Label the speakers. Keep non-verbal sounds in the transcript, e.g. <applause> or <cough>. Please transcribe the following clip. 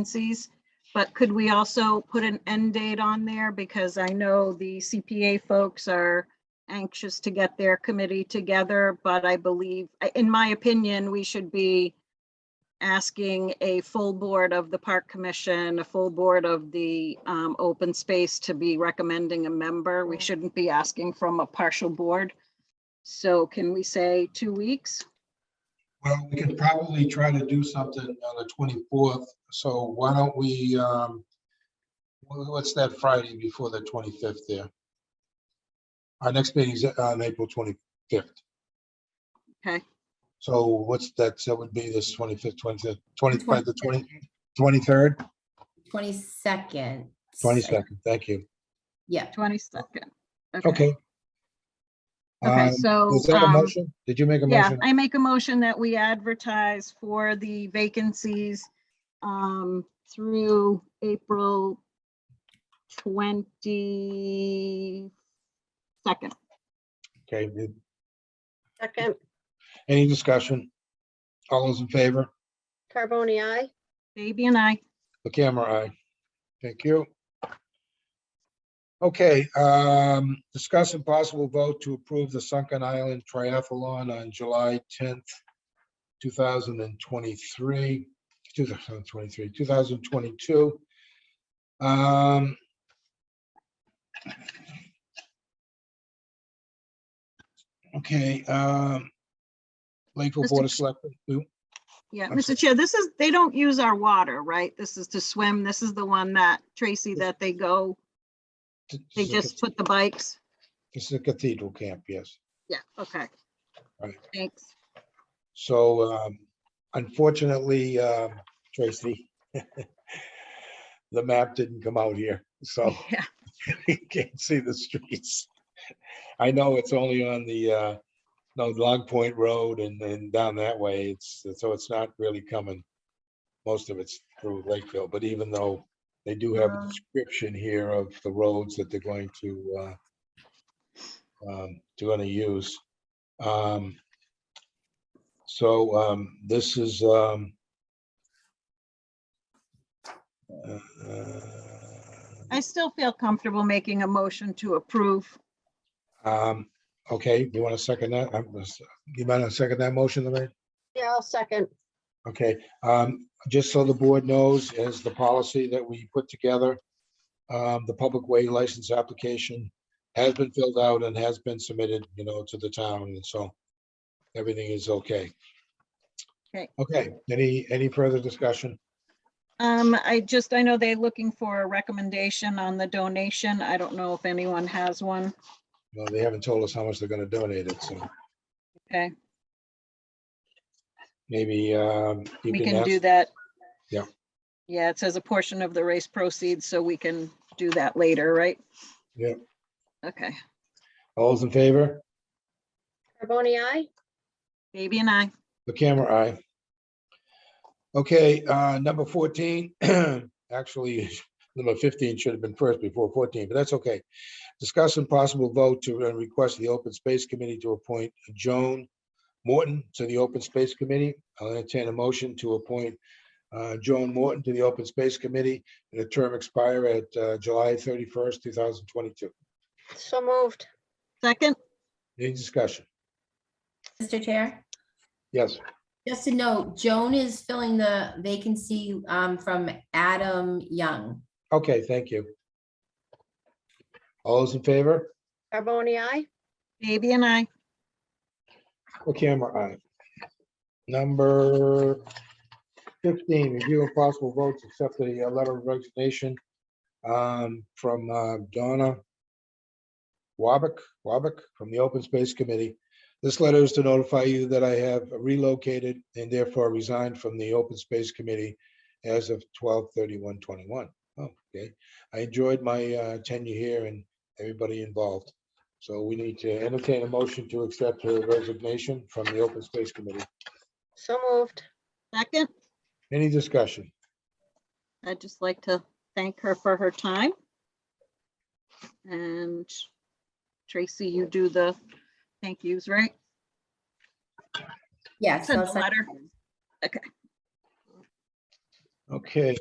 Speaker 1: vacancies. But could we also put an end date on there? Because I know the CPA folks are anxious to get their committee together, but I believe, in my opinion, we should be asking a full board of the Park Commission, a full board of the um, Open Space to be recommending a member. We shouldn't be asking from a partial board. So can we say two weeks?
Speaker 2: Well, we could probably try to do something on the twenty-fourth, so why don't we, um, wha- what's that Friday before the twenty-fifth there? Our next meeting's on April twenty-fifth.
Speaker 1: Okay.
Speaker 2: So what's that, so it would be this twenty-fifth, twenty, twenty-five, the twenty, twenty-third,
Speaker 3: Twenty-second.
Speaker 2: twenty-second, thank you,
Speaker 3: Yeah,
Speaker 1: 22nd.
Speaker 2: okay.
Speaker 1: Okay,
Speaker 2: Um,
Speaker 1: so.
Speaker 2: Is that a
Speaker 1: um,
Speaker 2: motion? Did you make a
Speaker 1: Yeah,
Speaker 2: motion?
Speaker 1: I make a motion that we advertise for the vacancies um, through April 22nd.
Speaker 2: Okay, did-
Speaker 4: Second,
Speaker 2: any discussion? All those in favor?
Speaker 4: Carboni, I.
Speaker 1: Baby and I,
Speaker 2: The camera eye. Thank you. Okay, um, discuss and possible vote to approve the Sunken Island Triathlon on July tenth, two thousand and twenty-three, two thousand and twenty-three, two thousand and twenty-two. Um. Okay, um. Lakeville
Speaker 1: Mr.
Speaker 2: Board of
Speaker 1: Ch-
Speaker 2: Selectmen, we-
Speaker 1: yeah,
Speaker 2: I'm sorry.
Speaker 1: Mr. Chair, this is, they don't use our water, right? This is to swim. This is the one that, Tracy, that they go,
Speaker 2: th-
Speaker 1: they
Speaker 2: this is a
Speaker 1: just put the bikes.
Speaker 2: cath- This is a cathedral camp, yes.
Speaker 1: Yeah, okay.
Speaker 2: Right.
Speaker 1: Thanks.
Speaker 2: So um, unfortunately, um, Tracy, <laughs> the map didn't come out here, so
Speaker 1: <laughs> Yeah,
Speaker 2: <laughs> you can't see the streets. I know it's only on the, uh, no, Long Point Road and then down that way. It's, so it's not really coming. Most of it's through Lakeville, but even though they do have a
Speaker 1: Uh.
Speaker 2: description here of the roads that they're going to, uh, um, they're gonna use. Um, so, um, this is, um, uh, uh,
Speaker 1: I still feel comfortable making a motion to approve.
Speaker 2: Um, okay, you want to second that? I'm just- You might want to second that motion, Lorraine?
Speaker 4: Yeah, I'll second.
Speaker 2: Okay, um, just so the board knows, is the policy that we put together. Um, the public way license application has been filled out and has been submitted, you know, to the town, and so everything is okay.
Speaker 1: Okay.
Speaker 2: Okay, any, any further discussion?
Speaker 1: Um, I just, I know they're looking for a recommendation on the donation. I don't know if anyone has one.
Speaker 2: Well, they haven't told us how much they're gonna donate it, so
Speaker 1: Okay,
Speaker 2: maybe, um. you
Speaker 1: we can
Speaker 2: ask-
Speaker 1: do that.
Speaker 2: Yeah.
Speaker 1: Yeah, it says a portion of the race proceeds, so we can do that later, right?
Speaker 2: Yeah.
Speaker 1: Okay,
Speaker 2: All those in favor?
Speaker 4: Carboni, I.
Speaker 1: baby and I,
Speaker 2: The camera eye. Okay, uh, number fourteen, <clears throat> actually, <laughs> number fifteen should have been first before fourteen, but that's okay. Discuss and possible vote to uh, request the Open Space Committee to appoint Joan Morton to the Open Space Committee. I'll entertain a motion to appoint uh, Joan Morton to the Open Space Committee and a term expire at uh, July thirty-first, two thousand twenty-two.
Speaker 4: So moved.
Speaker 1: second,
Speaker 2: Any discussion?
Speaker 3: Mr. Chair,
Speaker 2: Yes,
Speaker 3: just to note, Joan is filling the vacancy um, from Adam Young.
Speaker 2: okay, thank you. All those in favor?
Speaker 4: Carboni, I.
Speaker 1: baby and I,
Speaker 2: The camera eye. uh, Number fifteen, review of possible votes, accept the uh, letter of resignation um, from uh, Donna Wabick, Wabick, from the Open Space Committee. This letter is to notify you that I have relocated and therefore resigned from the Open Space Committee as of 12:31, 21. Oh, okay. I enjoyed my uh, tenure here and everybody involved. So we need to entertain a motion to accept her resignation from the Open Space Committee.
Speaker 4: So moved.
Speaker 1: second.
Speaker 2: Any discussion?
Speaker 1: I'd just like to thank her for her time. And Tracy, you do the thank yous, right?
Speaker 3: Yes.
Speaker 1: Send
Speaker 3: I'll
Speaker 1: the
Speaker 3: second
Speaker 1: letter.
Speaker 3: that.
Speaker 2: Okay,